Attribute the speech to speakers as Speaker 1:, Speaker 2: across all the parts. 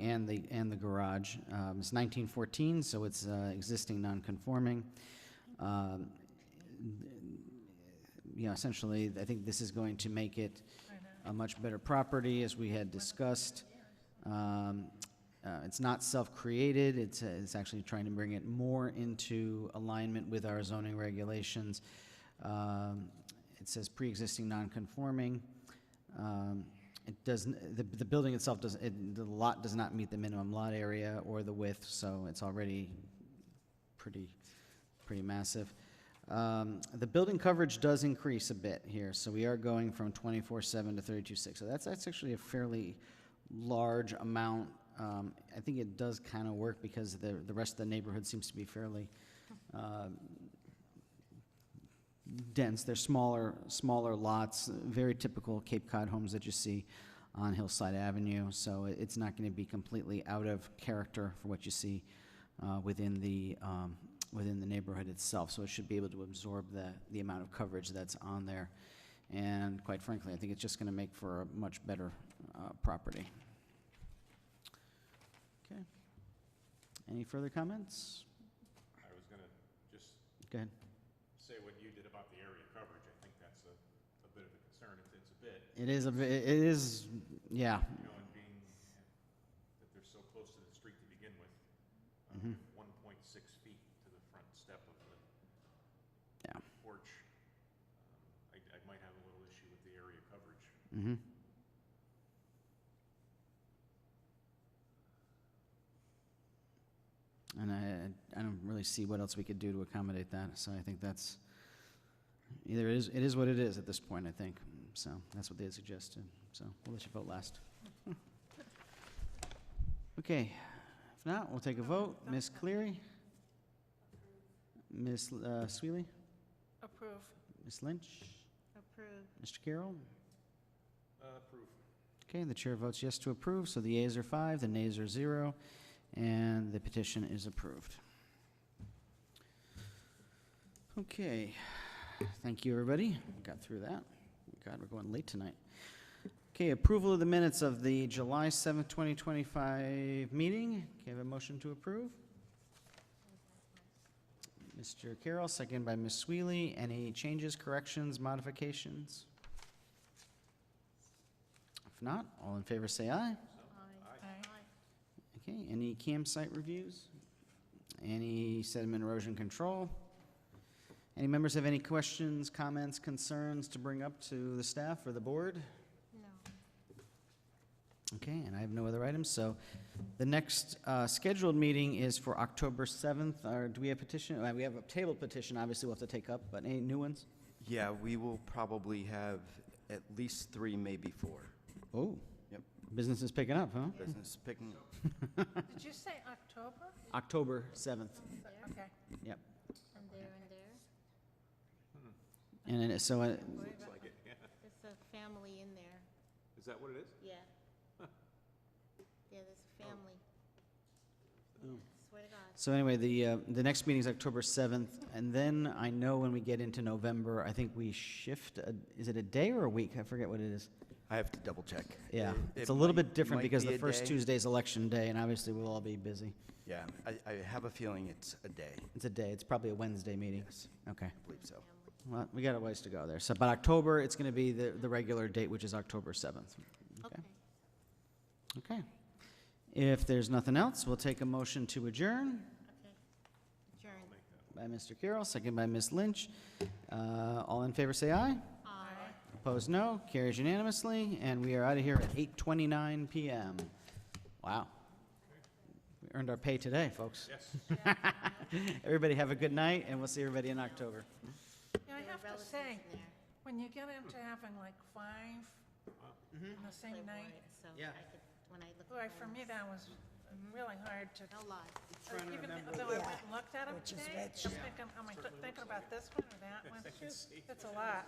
Speaker 1: and the, and the garage. Um, It's 1914, so it's uh, existing non-conforming. Um, You know, essentially, I think this is going to make it a much better property, as we had discussed. Um, uh, It's not self-created, it's, uh, it's actually trying to bring it more into alignment with our zoning regulations. Um, It says pre-existing non-conforming. Um, It doesn't, the, the building itself does, it- the lot does not meet the minimum lot area or the width, so it's already pretty, pretty massive. Um, The building coverage does increase a bit here, so we are going from 24/7 to 32/6. So that's, that's actually a fairly large amount. Um, I think it does kind of work because the, the rest of the neighborhood seems to be fairly um, dense. They're smaller, smaller lots, very typical Cape Cod homes that you see on Hillside Avenue. So it- it's not going to be completely out of character for what you see uh, within the, um, within the neighborhood itself. So it should be able to absorb the, the amount of coverage that's on there. And quite frankly, I think it's just going to make for a much better uh, property. Okay. Any further comments?
Speaker 2: I was gonna just
Speaker 1: Go ahead.
Speaker 2: say what you did about the area coverage. I think that's a, a bit of a concern if it's a bit,
Speaker 1: It is, a ve- it is, yeah,
Speaker 2: you know, and being, that they're so close to the street to begin with. uh, One point six feet to the front step of the
Speaker 1: yeah.
Speaker 2: porch. um, I, I might have a little issue with the area coverage.
Speaker 1: Mm-hmm. And I, I don't really see what else we could do to accommodate that, so I think that's, either it is, it is what it is at this point, I think. So, that's what they had suggested, so we'll let you vote last. Okay, if not, we'll take a vote. Ms. Cleary? Ms. L- uh, Sweeley?
Speaker 3: Approve.
Speaker 1: Ms. Lynch?
Speaker 3: Approve.
Speaker 1: Mr. Carroll?
Speaker 2: Uh, proof.
Speaker 1: Okay, the chair votes yes to approve, so the yeas are five, the nays are zero, and the petition is approved. Okay, thank you, everybody. We Got through that. God, we're going late tonight. Okay, approval of the minutes of the July seventh, twenty twenty-five meeting. Can I have a motion to approve? Mr. Carroll, second by Ms. Sweeley. Any changes, corrections, modifications? If not, all in favor say aye.
Speaker 3: Aye.
Speaker 1: Okay, any campsite reviews? Any sediment erosion control? Any members have any questions, comments, concerns to bring up to the staff or the board?
Speaker 3: No.
Speaker 1: Okay, and I have no other items, so the next uh, scheduled meeting is for October 7th, or do we have petition? uh, We have a tabled petition, obviously we'll have to take up, but any new ones?
Speaker 4: Yeah, we will probably have at least three, maybe four.
Speaker 1: Oh,
Speaker 4: Yep.
Speaker 1: business is picking up, huh?
Speaker 4: Business picking up.
Speaker 3: Did you say October?
Speaker 1: October 7th,
Speaker 3: Okay.
Speaker 1: yep.
Speaker 5: And there and there.
Speaker 1: And it- so, uh,
Speaker 5: Worry
Speaker 2: Looks
Speaker 5: about-
Speaker 2: like it, yeah.
Speaker 5: There's a family in there,
Speaker 2: Is that what it is?
Speaker 5: yeah. Yeah, there's a family.
Speaker 1: Oh.
Speaker 5: Swear to God.
Speaker 1: So anyway, the, uh, the next meeting is October 7th, and then I know when we get into November, I think we shift, a- is it a day or a week? I forget what it is.
Speaker 4: I have to double check.
Speaker 1: Yeah,
Speaker 4: It-
Speaker 1: it's
Speaker 4: it
Speaker 1: a little
Speaker 4: might-
Speaker 1: bit different
Speaker 4: might
Speaker 1: because
Speaker 4: be
Speaker 1: the
Speaker 4: a
Speaker 1: first
Speaker 4: day.
Speaker 1: Tuesday is election day, and obviously we'll all be busy.
Speaker 4: Yeah, I, I have a feeling it's a day.
Speaker 1: It's a day, it's probably a Wednesday meeting.
Speaker 4: Yes,
Speaker 1: Okay,
Speaker 4: I believe so.
Speaker 1: well, we got a ways to go there. So, but October, it's gonna be the, the regular date, which is October 7th. Okay,
Speaker 5: Okay.
Speaker 1: okay. If there's nothing else, we'll take a motion to adjourn.
Speaker 5: Okay. Adjourned.
Speaker 1: by Mr. Carroll, second by Ms. Lynch. Uh, All in favor, say aye.
Speaker 5: Uh, Aye.
Speaker 1: Opposed, no. Carries unanimously, and we are out of here at 8:29 PM. Wow. We earned our pay today, folks.
Speaker 2: Yes.
Speaker 1: Everybody have a good night, and we'll see everybody in October.
Speaker 3: You know, I
Speaker 5: There were
Speaker 3: have to
Speaker 5: relatives
Speaker 3: say,
Speaker 5: in there.
Speaker 3: when you get into having like five Uh-huh. on the
Speaker 5: They
Speaker 3: same night,
Speaker 5: weren't, So
Speaker 1: Yeah.
Speaker 5: I could, when I look.
Speaker 3: boy,
Speaker 5: at
Speaker 3: for
Speaker 5: my-
Speaker 3: me, that was really hard to,
Speaker 5: No lie.
Speaker 3: even though I went and looked at them today, just thinking, am I thinking about this one or that one? It's a lot.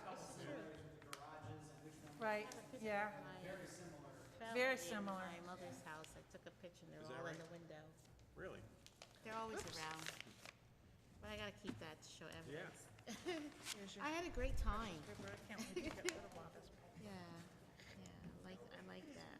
Speaker 3: Right, yeah,
Speaker 5: Very similar.
Speaker 3: Very similar.
Speaker 5: My mother's house, I took a picture and they're all in the window.
Speaker 2: Really?
Speaker 5: They're always around. But I gotta keep that to show evidence.
Speaker 3: Here's your-
Speaker 5: I had a great time.
Speaker 3: I can't wait to get rid of all this.
Speaker 5: Yeah, yeah, I like, I like that.